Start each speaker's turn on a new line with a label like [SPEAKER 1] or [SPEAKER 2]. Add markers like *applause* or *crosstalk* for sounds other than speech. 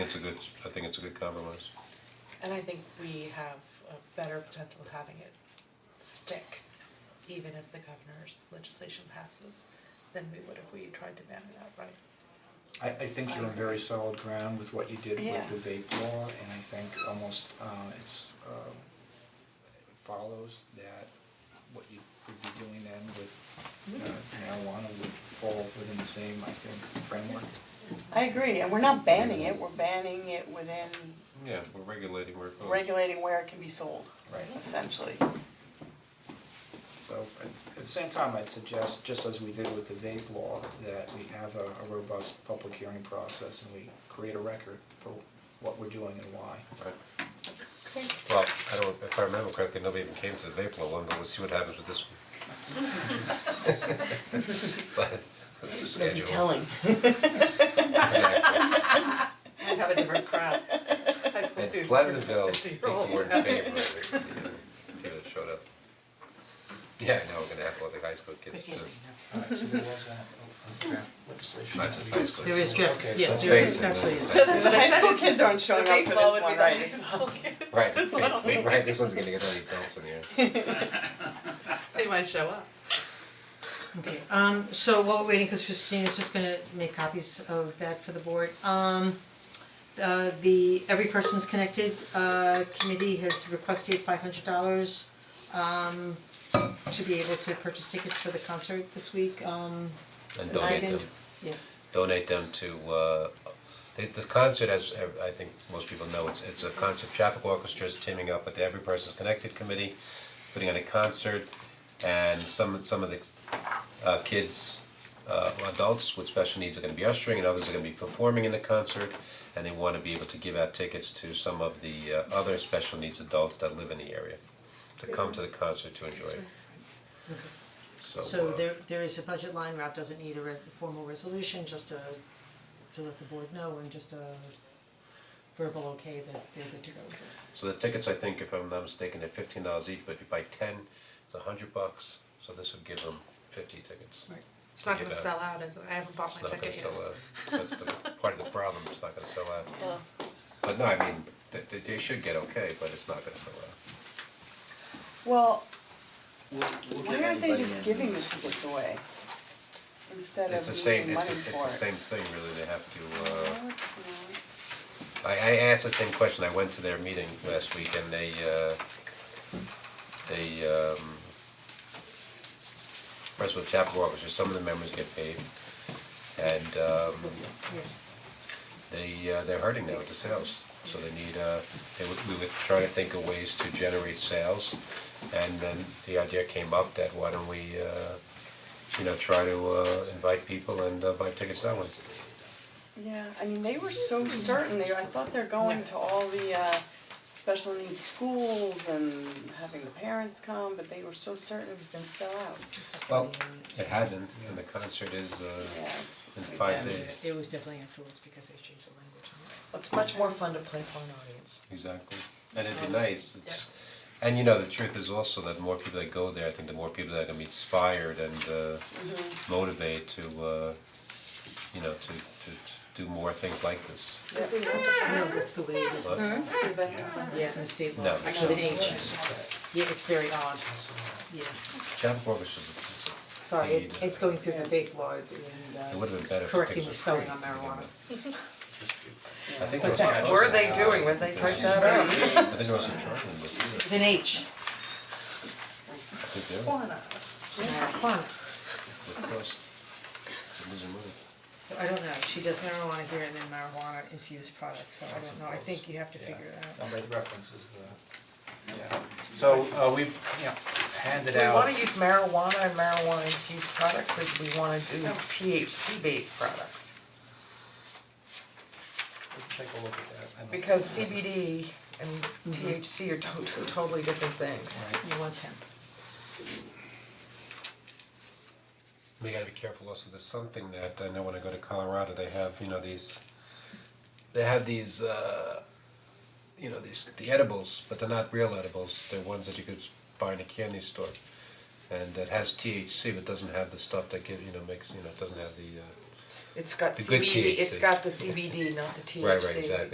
[SPEAKER 1] it's a good, I think it's a good compromise.
[SPEAKER 2] And I think we have a better potential of having it stick, even if the governor's legislation passes, than we would if we tried to ban it outright.
[SPEAKER 3] I I think you're on very solid ground with what you did
[SPEAKER 2] Yeah.
[SPEAKER 3] with the vape law, and I think almost uh it's um it follows that what you would be doing then with uh marijuana would fall within the same, I think, framework.
[SPEAKER 4] I agree, and we're not banning it, we're banning it within
[SPEAKER 1] Yeah, we're regulating, we're.
[SPEAKER 4] regulating where it can be sold,
[SPEAKER 3] Right.
[SPEAKER 4] essentially.
[SPEAKER 3] So at at the same time, I'd suggest, just as we did with the vape law, that we have a a robust public hearing process and we create a record for what we're doing and why.
[SPEAKER 1] Right. Well, I don't, if I remember correctly, nobody even came to the vape law one, but we'll see what happens with this one. *laughs* But, that's the schedule. *laughs*
[SPEAKER 2] *laughs*
[SPEAKER 1] Exactly.
[SPEAKER 2] Might have a different crowd, high school
[SPEAKER 1] And
[SPEAKER 2] students.
[SPEAKER 1] Pleasantville, people
[SPEAKER 2] Fifty-year-olds.
[SPEAKER 1] were in favor of it, you know, people showed up. Yeah, I know, we're gonna have all the high school kids too,
[SPEAKER 3] Alright, so there was that okay, legislation.
[SPEAKER 1] not just high school.
[SPEAKER 5] There is
[SPEAKER 3] Okay,
[SPEAKER 5] draft,
[SPEAKER 3] so
[SPEAKER 5] yeah,
[SPEAKER 1] Let's
[SPEAKER 5] there
[SPEAKER 1] face
[SPEAKER 5] is
[SPEAKER 1] it, this
[SPEAKER 5] actually.
[SPEAKER 1] is-
[SPEAKER 4] So that's what high school kids aren't showing up for this one, right?
[SPEAKER 2] *laughs*
[SPEAKER 1] Right, right, *laughs* right, this one's gonna get all the adults in here.
[SPEAKER 2] They might show up.
[SPEAKER 5] Okay, um, so while we're waiting, because Christina's just gonna make copies of that for the board, um, uh, the Every Person's Connected, uh, committee has requested five hundred dollars, um, to be able to purchase tickets for the concert this week, um,
[SPEAKER 1] And
[SPEAKER 5] I
[SPEAKER 1] donate
[SPEAKER 5] can-
[SPEAKER 1] them,
[SPEAKER 5] yeah.
[SPEAKER 1] donate them to, uh, the, the concert, as ev- I think most people know, it's, it's a concert, Chapel Orchestra is teaming up with the Every Person's Connected Committee, putting on a concert, and some, some of the, uh, kids, uh, adults with special needs are gonna be ushering, and others are gonna be performing in the concert, and they wanna be able to give out tickets to some of the, uh, other special needs adults that live in the area, to come to the concert to enjoy it, so,
[SPEAKER 5] So
[SPEAKER 1] uh,
[SPEAKER 5] there there is a budget line, Rob doesn't need a res- formal resolution, just a, to let the board know and just a verbal okay that they're good to go with it.
[SPEAKER 1] So the tickets, I think, if I'm not mistaken, they're fifteen dollars each, but if you buy ten, it's a hundred bucks, so this would give them fifty tickets.
[SPEAKER 5] Right.
[SPEAKER 2] It's not
[SPEAKER 1] Yeah,
[SPEAKER 2] gonna
[SPEAKER 1] but-
[SPEAKER 2] sell out, is it? I haven't bought
[SPEAKER 1] It's
[SPEAKER 2] my
[SPEAKER 1] not gonna
[SPEAKER 2] ticket yet.
[SPEAKER 1] sell out, that's the part of the problem, it's not gonna sell out. But no, I mean, they they they should get okay, but it's not gonna sell out.
[SPEAKER 4] Well,
[SPEAKER 6] We'll, we'll get
[SPEAKER 4] why aren't they
[SPEAKER 6] everybody
[SPEAKER 4] just
[SPEAKER 6] in.
[SPEAKER 4] giving the tickets away? Instead
[SPEAKER 1] It's
[SPEAKER 4] of
[SPEAKER 1] the
[SPEAKER 4] needing
[SPEAKER 1] same,
[SPEAKER 4] money
[SPEAKER 1] it's
[SPEAKER 4] for it?
[SPEAKER 1] the, it's the same thing, really, they have to, uh,
[SPEAKER 4] No, it's not.
[SPEAKER 1] I I asked the same question, I went to their meeting last week and they uh they um first of all, Chapel Orchestra, some of the members get paid and um they uh they're hurting now with the sales, so they need uh they would we were trying to think of ways to generate sales and then the idea came up that why don't we uh you know, try to uh invite people and uh buy tickets that way.
[SPEAKER 4] Yeah, I mean, they were so certain, they, I thought they're going to all the uh special needs schools and having the parents come, but they were so certain it was gonna sell out.
[SPEAKER 1] Well, it hasn't, and the concert is uh
[SPEAKER 4] Yes,
[SPEAKER 1] in
[SPEAKER 4] this
[SPEAKER 1] five
[SPEAKER 4] weekend.
[SPEAKER 1] days.
[SPEAKER 5] It was definitely afterwards because they changed the language on it.
[SPEAKER 7] It's much more fun to play for an audience.
[SPEAKER 1] Exactly, and it'd be nice, it's, and you know, the truth is also that the more people that go there, I think the more people that are gonna be inspired and uh motivated to uh, you know, to to to do more things like this.
[SPEAKER 2] Just leave it at the-
[SPEAKER 5] No, that's the way it is.
[SPEAKER 1] But-
[SPEAKER 2] leave it at the-
[SPEAKER 5] Yeah, in the state law,
[SPEAKER 1] No.
[SPEAKER 5] I know the name. Yeah, it's very odd, yeah.
[SPEAKER 1] Chapel Orchestra, is a-
[SPEAKER 5] Sorry, it it's going through the vape law
[SPEAKER 1] it
[SPEAKER 5] and
[SPEAKER 1] would've been better
[SPEAKER 5] uh
[SPEAKER 1] if the
[SPEAKER 5] correcting
[SPEAKER 1] tickets
[SPEAKER 5] the
[SPEAKER 1] were
[SPEAKER 5] spelling
[SPEAKER 1] free.
[SPEAKER 5] on marijuana.
[SPEAKER 1] I think there was.
[SPEAKER 7] What were they doing when they typed that
[SPEAKER 1] I
[SPEAKER 7] out?
[SPEAKER 1] think there was some charge in this, yeah,
[SPEAKER 5] With an H,
[SPEAKER 1] I think they were,
[SPEAKER 5] marijuana.
[SPEAKER 1] of course, they're losing money.
[SPEAKER 5] I don't know, she does marijuana here and then marijuana infused products, so I
[SPEAKER 3] That's
[SPEAKER 5] don't know, I
[SPEAKER 3] gross.
[SPEAKER 5] think you have to
[SPEAKER 3] Yeah.
[SPEAKER 5] figure it out.
[SPEAKER 3] Number of references the, yeah, so uh we've, you know, handed
[SPEAKER 7] Do we
[SPEAKER 3] out,
[SPEAKER 7] wanna use marijuana and marijuana infused products, or do we wanna do
[SPEAKER 2] Oh.
[SPEAKER 7] THC based products?
[SPEAKER 3] let's take a look at that. I don't-
[SPEAKER 7] Because CBD and THC are to- two totally different things.
[SPEAKER 3] Right.
[SPEAKER 5] You want him.
[SPEAKER 1] We gotta be careful also, there's something that, I know when I go to Colorado, they have, you know, these, they have these, uh, you know, these, the edibles, but they're not real edibles, they're ones that you could buy in a candy store. And it has THC, but doesn't have the stuff that gives, you know, makes, you know, it doesn't have the, uh,
[SPEAKER 7] It's got
[SPEAKER 1] The good
[SPEAKER 7] CBD, it's
[SPEAKER 1] THC.
[SPEAKER 7] got the CBD, not the THC.
[SPEAKER 1] right, right, exactly.